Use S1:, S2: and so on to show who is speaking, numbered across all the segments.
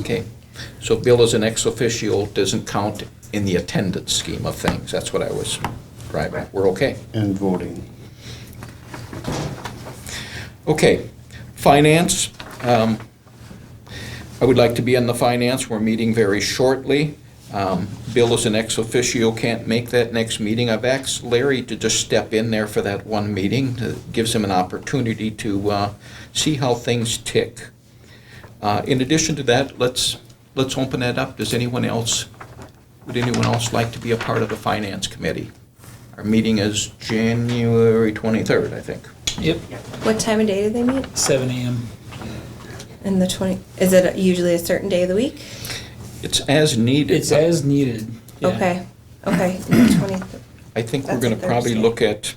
S1: Okay, so Bill as an ex officio doesn't count in the attendance scheme of things, that's what I was driving, at. we're okay.
S2: and voting.
S1: Okay, finance, um, I would like to be on the finance, we're meeting very shortly. Um, Bill as an ex officio can't make that next meeting, I've asked Larry to just step in there for that one meeting, It gives him an opportunity to uh, see how things tick. Uh, In addition to that, let's, let's open that up. Does anyone else, would anyone else like to be a part of the Finance Committee? Our meeting is January 23rd, I think.
S3: Yep,
S4: What time of day do they meet?
S3: seven AM.
S4: And the 20, is it usually a certain day of the week?
S1: It's as needed.
S3: It's as needed. yeah.
S4: Okay, okay, and the 20,
S1: I think we're
S4: That's
S1: going to probably
S4: Thursday.
S1: look at,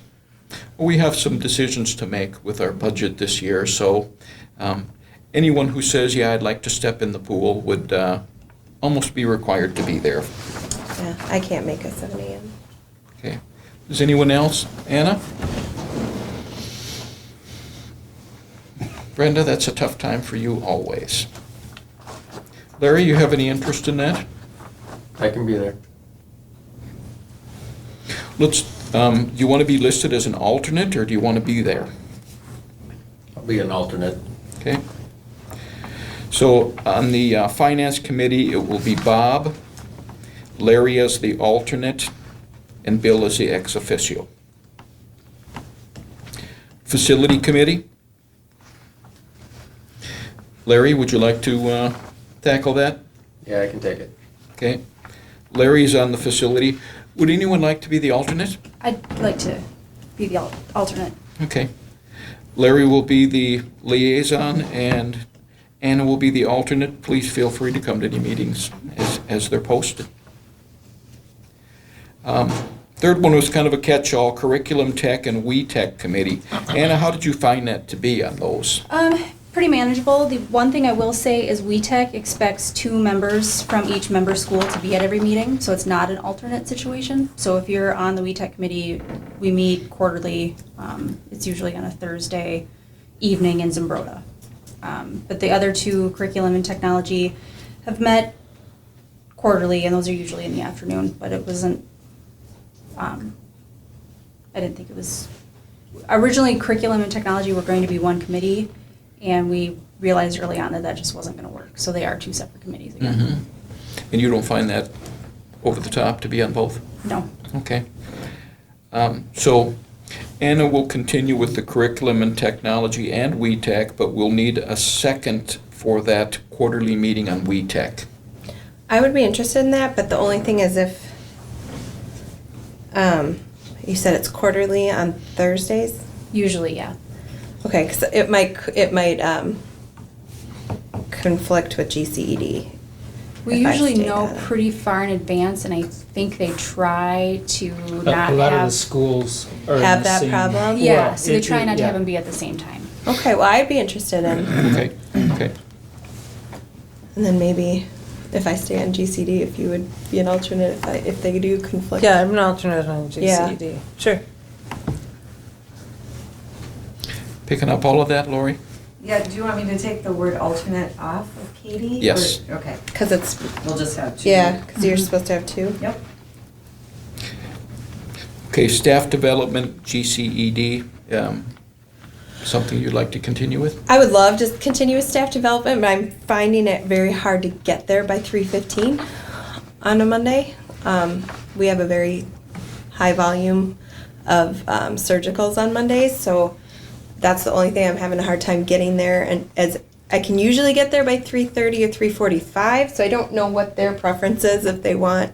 S1: we have some decisions to make with our budget this year, so um, anyone who says, yeah, I'd like to step in the pool would uh, almost be required to be there.
S4: yeah, I can't make a 7 AM.
S1: Okay. Does anyone else? Anna? Brenda, that's a tough time for you always. Larry, you have any interest in that?
S5: I can be there.
S1: Let's, um, you want to be listed as an alternate, or do you want to be there?
S5: I'll be an alternate.
S1: Okay. So on the uh, Finance Committee, it will be Bob, Larry as the alternate, and Bill as the ex officio. Facility Committee? Larry, would you like to uh, tackle that?
S5: Yeah, I can take it.
S1: Okay. Larry's on the facility. Would anyone like to be the alternate?
S6: I'd like to be the al- alternate.
S1: Okay. Larry will be the liaison and Anna will be the alternate. Please feel free to come to any meetings as, as they're posted. Um, Third one was kind of a catch-all, Curriculum Tech and We Tech Committee. Anna, how did you find that to be on those?
S6: Um, pretty manageable. The one thing I will say is WeTech expects two members from each member school to be at every meeting, so it's not an alternate situation. So if you're on the WeTech committee, we meet quarterly. Um, it's usually on a Thursday evening in Zimbrota. Um, but the other two, curriculum and technology, have met quarterly, and those are usually in the afternoon. But it wasn't. Um, I didn't think it was originally curriculum and technology were going to be one committee, and we realized early on that that just wasn't going to work. So they are two separate committees again.
S1: Mm-hmm. And you don't find that over the top to be on both?
S6: No.
S1: Okay. Um, So Anna will continue with the curriculum and technology and WeTech, but we'll need a second for that quarterly meeting on WeTech.
S4: I would be interested in that, but the only thing is if, um, you said it's quarterly on Thursdays?
S6: Usually, yeah.
S4: Okay, because it might, it might um, conflict with GCED.
S6: We
S4: if I
S6: usually
S4: stayed
S6: know
S4: on it.
S6: pretty far in advance, and I think they try to
S3: A
S6: not
S3: a lot of the
S6: have-
S3: schools are in
S4: Have
S3: the
S4: that
S3: same-
S4: problem?
S6: Yeah,
S3: Well,
S6: so they
S3: it-
S6: try
S3: it-
S6: not to
S3: yeah.
S6: have them be at the same time.
S4: Okay, well, I'd be interested in,
S1: Okay, okay.
S4: and then maybe if I stay on GCD, if you would be an alternate, if, I, if they do conflict.
S7: Yeah, I'm an alternate on E
S4: Yeah.
S7: GCD.
S4: Sure.
S1: Picking up all of that, Lori?
S8: Yeah, do you want me to take the word alternate off of Katie? or-
S1: Yes.
S8: Okay,
S4: Because it's,
S8: we'll just have two.
S4: yeah, because you're supposed to have two.
S8: Yep.
S1: Okay, staff development, GCED, um, something you'd like to continue with?
S4: I would love to continue with staff development, but I'm finding it very hard to get there by three fifteen on a Monday. Um, we have a very high volume of um, surgicals on Mondays, so that's the only thing I'm having a hard time getting there. And as I can usually get there by three thirty or three forty-five, so I don't know what their preference is if they want.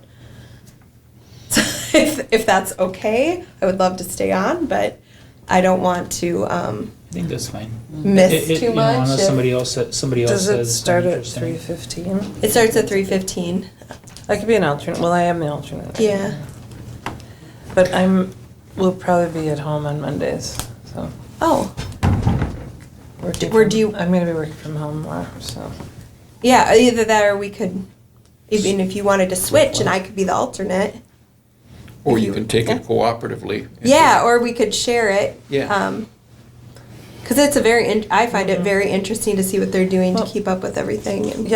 S4: if if that's okay, I would love to stay on, but I don't want to. Um,
S3: I think that's fine.
S4: miss
S3: It- it-
S4: too
S3: you know,
S4: much.
S3: Unless
S4: if-
S3: somebody else, sa- somebody else
S7: Does
S3: says.
S7: it
S3: it's
S7: start at
S3: interesting.
S7: three fifteen?
S4: it starts at three fifteen.
S7: I could be an alternate. Well, I am the alternate.
S4: Yeah.
S7: But I'm, will probably be at home on Mondays, so.
S4: Oh,
S7: working
S4: Where
S7: from-
S4: do you-
S7: I'm gonna be working from home more, so.
S4: yeah. Either that, or we could. Even if you wanted to switch, and I could be the alternate.
S1: Or
S4: If
S1: you
S4: you-
S1: can take it cooperatively?
S4: Yeah, or we could share it.
S1: Yeah.
S4: Um,
S3: Mm-hmm.
S4: because it's a very. In- I find it very interesting to see what they're doing to keep up with everything. And